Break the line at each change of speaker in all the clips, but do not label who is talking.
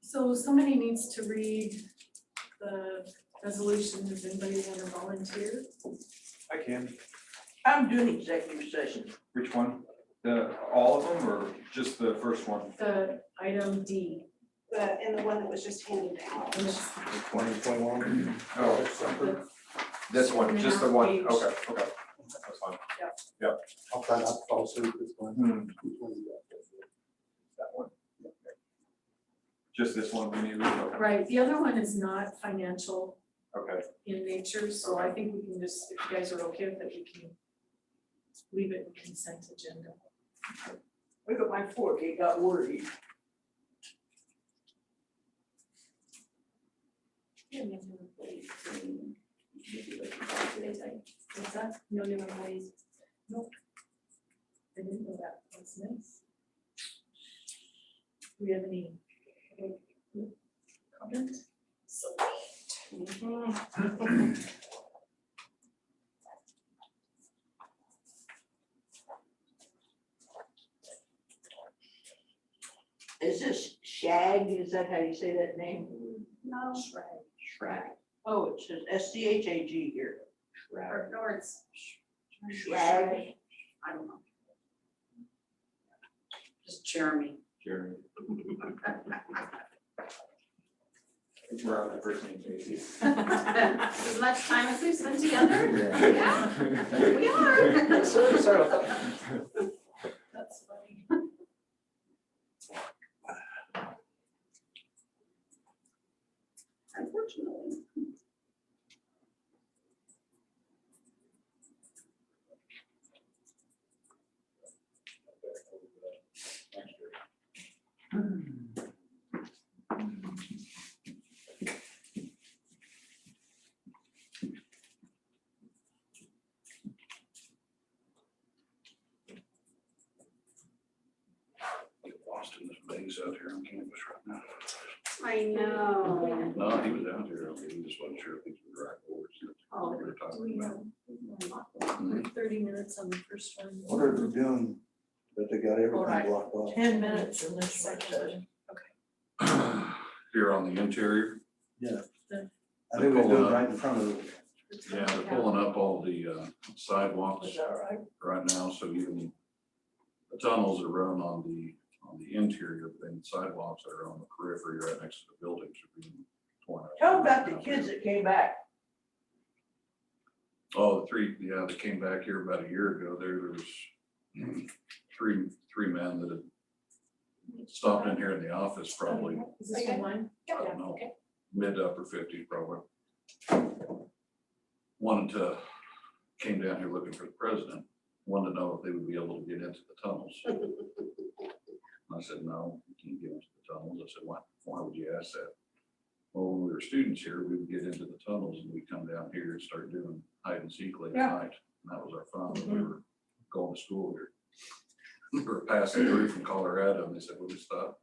So somebody needs to read the resolution, does anybody wanna volunteer?
I can.
I'm doing executive session.
Which one? The, all of them or just the first one?
The item D,
the, and the one that was just handed out.
which
Twenty twenty-one. Oh, this one, just the one,
Page.
okay, okay. That's fine.
I'll try not to fall asleep this one.
Hmm,
Which one is
That one. Just this one we need to read,
right, the other one is not financial
okay.
in nature, so I think we can just, if you guys are okay with it, we can leave it in consent agenda.
Look at my fork, it got worried.
Yeah, we have new employees, so we- we should look at that today, so I- What's that? No new employees.
I didn't know that, that's nice. Do we have any comment? So.
Is this Shag, is that how you say that name?
No,
Shrag. Oh, it says S C H A G here.
or, or it's.
Shrag. I don't know. Just Jeremy.
Jeremy. We're on the first name basis.
As much time as we've spent together,
Yeah.
we are.
that? Sorry.
That's funny.
Unfortunately.
get lost in this maze out here on campus right now.
I know.
No, he was out here, he just wasn't sure if he was right or
Oh,
what we were
Do we
talking about.
have um, thirty minutes on the first one?
What are they doing that they got
Alright.
everything blocked off?
Ten minutes in this one
Second
says.
one.
Here on the interior,
I think we do it right in front of them.
yeah, they're pulling up all the uh, sidewalks
Is that right?
right now, so even the tunnels are run on the, on the interior, but then sidewalks that are on the periphery right next to the buildings are being torn out.
Tell about the kids that came back.
Oh, the three, yeah, they came back here about a year ago. There was three, three men that had stopped in here in the office probably,
Is this the one?
I don't know, mid to upper fifties probably. Wanted to, came down here looking for the president, wanted to know if they would be able to get into the tunnels. I said, no, you can't get into the tunnels. I said, why, why would you ask that? Well, when we were students here, we would get into the tunnels and we'd come down here and start doing hide and seek late at
Yeah.
night. And that was our fun when we were going to school here. We were passing through from Colorado and they said, will you stop?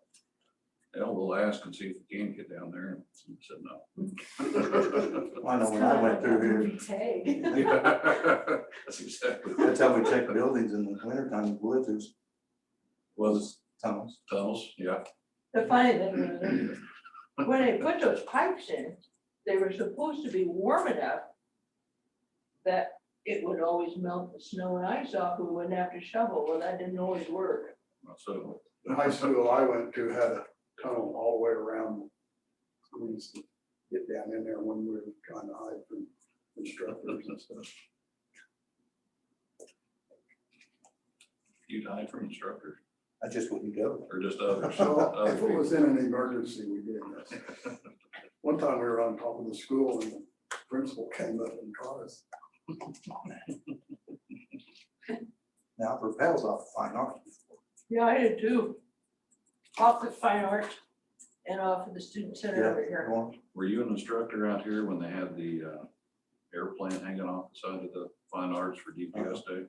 Hell, we'll ask and see if we can get down there. And I said, no.
I know when I went through here,
Tag.
That's exactly.
that's how we check buildings in the winter time, blizzards,
Was
tunnels.
tunnels, yeah.
The funny thing was, when they put those pipes in, they were supposed to be warm enough that it would always melt the snow and ice off, we wouldn't have to shovel, well, that didn't always work.
So,
The high school I went to had a tunnel all the way around. We used to get down in there when we were trying to hide from instructors and stuff.
you died from instructor
I just wouldn't go.
or just others?
Oh,
So uh,
other
if it
people?
was in an emergency, we did this. One time we were on top of the school and the principal came up and caught us.
Now propels off fine art.
Yeah, I did too. Off the fine arts and off of the student center over
Yeah,
here.
go on.
Were you an instructor out here when they had the uh, airplane hanging off the side of the fine arts for DPS day?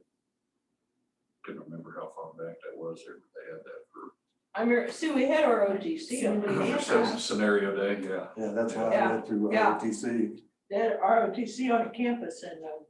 Couldn't remember how far back that was. They they had that
I mean, see, we had our OTC, and we
for-
had
for
that.
s- scenario day, yeah.
Yeah, that's why I
Yeah,
went through uh,
yeah.
ROTC.
They had our OTC on campus and uh,